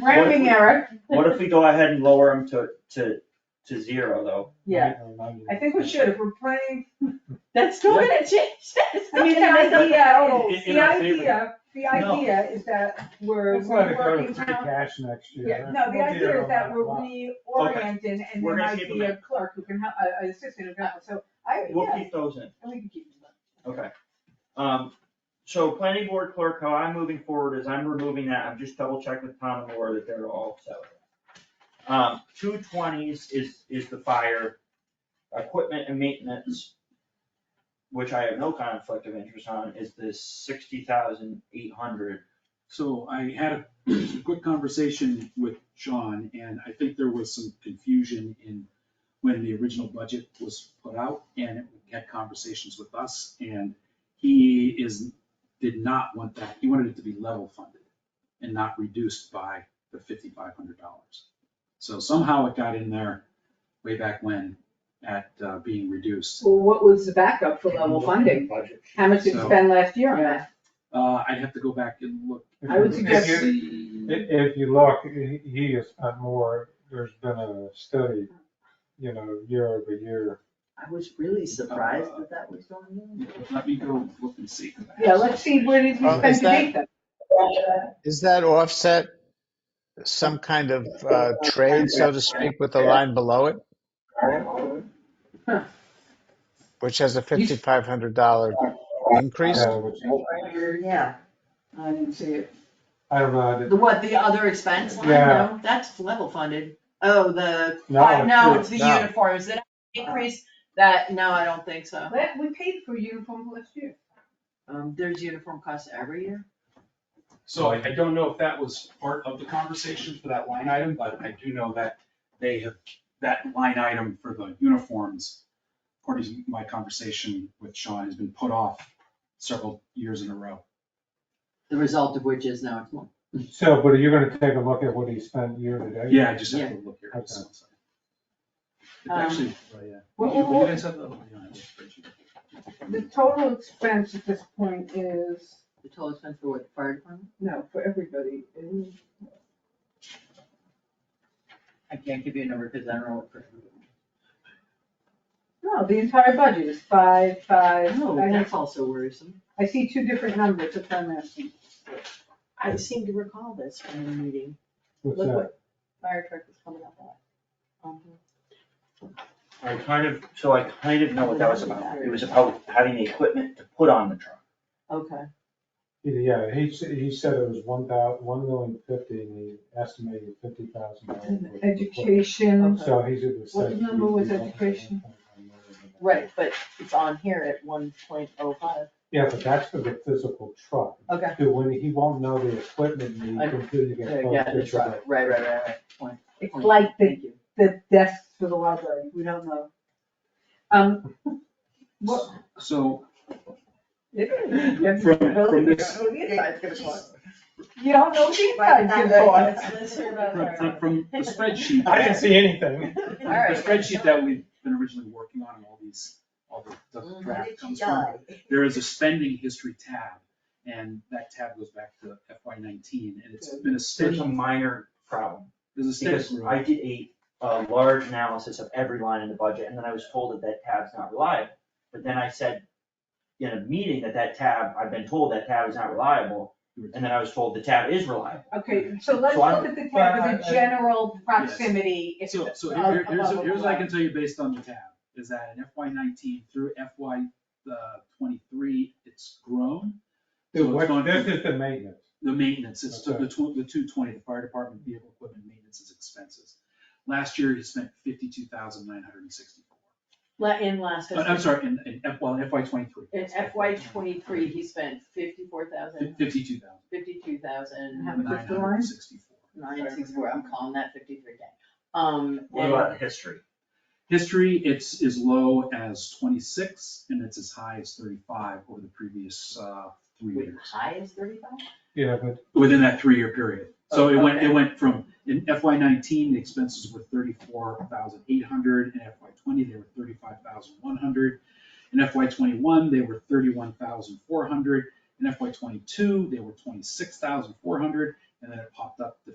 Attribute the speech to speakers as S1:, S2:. S1: Rounding error.
S2: What if we go ahead and lower them to, to, to zero though?
S1: Yeah, I think we should, if we're planning,
S3: That's still gonna change, that's
S1: I mean, the
S3: gonna uh, oh. make a
S4: uh,
S1: idea,
S3: total.
S1: is-
S2: In-
S1: the
S2: in our favor.
S1: idea, the
S5: No.
S1: idea is that we're
S5: Let's let it go to
S1: working
S5: free
S1: town.
S5: cash next
S1: Yeah,
S5: year.
S1: no, the
S5: We'll deal
S1: idea is
S5: with
S1: that we're
S5: later.
S1: reorienting and
S2: We're
S1: there
S2: gonna
S1: might
S2: keep
S1: be
S2: them
S1: a clerk who can help, uh, a- an assistant who can help, so I,
S2: We'll
S1: yeah,
S2: keep those in,
S1: and we can keep them.
S2: okay. Um, so planning board clerk, how I'm moving forward is I'm removing that, I'm just double checking with Tom and Laura that they're all set. Um, two twenties is, is the fire, equipment and maintenance, which I have no conflict of interest on, is this sixty thousand eight hundred.
S6: So I had a quick conversation with Sean, and I think there was some confusion in when the original budget was put out, and we had conversations with us, and he is, did not want that, he wanted it to be level funded and not reduced by the fifty-five hundred dollars. So somehow it got in there way back when at uh, being reduced.
S3: Well, what was the backup for level funding? How much did you
S6: So-
S3: spend last year on that?
S6: Uh, I'd have to go back and look.
S5: If
S3: I would
S5: you- if
S3: suggest-
S5: you-
S6: See.
S5: If, if you look, he he has spent more, there's been a study, you know, year over year.
S4: I was really surprised
S6: Uh,
S4: that that was going
S6: Let me go look and see.
S3: Yeah, let's see, where did you
S7: Uh,
S3: spend
S7: is
S3: to
S7: that-
S3: date that?
S7: Is that offset some kind of uh, trade, so to speak, with the line below it?
S3: Huh.
S7: Which has a $5,500 increase?
S5: Yeah, which is-
S4: on. Yeah,
S3: I didn't see it.
S5: I don't know, I
S4: the
S5: didn't-
S4: what, the other expense line,
S5: Yeah.
S4: no, that's level funded. Oh, the,
S5: No,
S4: uh, no,
S5: it's-
S4: it's the
S7: No.
S4: uniforms, that increase, that, no, I don't think so.
S3: That- we paid for uniform last year.
S4: Um, there's uniform costs every year.
S6: So I, I don't know if that was part of the conversation for that line item, but I do know that they have, that line item for the uniforms, according to my conversation with Sean, has been put off several years in a row.
S4: The result of which is now it's more.
S5: so, but are you gonna take a look at what he spent year to date?
S6: Yeah, I just have to look here. It's
S4: Um,
S6: actually, oh, yeah.
S3: What- what-
S6: You- you
S3: what-
S6: guys have the- oh, yeah, I have the spreadsheet.
S3: The total expense at this point is,
S4: The total expense for what, the fire department?
S3: no, for everybody, is
S4: I can't give you a number because I don't know what.
S3: No, the entire budget is five, five,
S4: No,
S3: I have,
S4: that's also worrisome.
S3: I see two different numbers, that's what I'm asking.
S4: I seem to recall this from the meeting.
S5: What's
S4: Look
S5: that?
S4: what fire truck is coming up on.
S2: I kind of, so I kind of know what that was about, it was about having the equipment to put on the truck.
S4: Okay.
S5: Yeah, he, s- he said it was one thou, one million fifty, and he estimated fifty thousand dollars.
S3: Education,
S5: So he's at the.
S3: What number was education?
S4: Right, but it's on here at one point oh five.
S5: Yeah, but that's for the physical truck.
S4: Okay.
S5: Dude, when he won't know the equipment need
S4: I-
S5: until you get close
S4: Yeah,
S5: to
S4: it's right,
S5: the.
S4: right, right, right, right. Point,
S3: it's
S4: point.
S3: like the,
S4: Thank you.
S3: the desks for the library, we don't know. Um, what,
S6: So,
S3: you
S6: from, from this,
S3: don't know what these guys do for.
S6: from, from- from the spreadsheet.
S5: I didn't see anything.
S6: The
S4: All right.
S6: spreadsheet that we've been originally working on, and all these, all the- the draft comes from, there is a spending history tab, and that tab goes back to FY nineteen, and it's been a
S2: There's a
S6: steady,
S2: minor problem,
S6: there's a
S2: because
S6: steady.
S2: I did a, a large analysis of every line in the budget, and then I was told that that tab's not reliable. But then I said in a meeting that that tab, I've been told that tab is not reliable, and then I was told the tab is reliable.
S3: Okay, so let's
S2: So I-
S3: look at the tab of the general proximity. if-
S6: So, so
S3: uh,
S6: here- here's,
S3: above
S6: here's what I
S3: the
S6: can tell you based on the tab, is that in FY nineteen through FY uh, twenty-three, it's grown.
S5: Dude,
S6: So it's
S5: what-
S6: gone
S5: this
S6: from
S5: is the maintenance.
S6: The maintenance, it's to
S5: Okay.
S6: the two, the two twenty, the fire department vehicle equipment maintenance is expenses. Last year, he spent fifty-two thousand nine hundred and sixty-four.
S4: La- In last
S6: But
S4: fiscal,
S6: Oh, I'm sorry, in, in F, well, in FY twenty-three.
S4: in FY twenty-three, he spent fifty-four thousand,
S6: Fifty-two thousand
S4: fifty-two thousand,
S3: How much is the
S6: nine hundred
S3: line?
S6: and sixty-four.
S4: nine sixty-four, I'm calling that fifty-three day. Um,
S2: What about the history?
S6: History, it's as low as twenty-six and it's as high as thirty-five over the previous, uh, three
S4: wait,
S6: years,
S4: high is thirty-five?
S5: Yeah, but
S6: within that three-year period. So it went,
S4: Okay.
S6: it went from, in FY nineteen, the expenses were thirty-four thousand eight hundred, in FY twenty, they were thirty-five thousand one hundred. In FY twenty-one, they were thirty-one thousand four hundred, in FY twenty-two, they were twenty-six thousand four hundred, and then it popped up to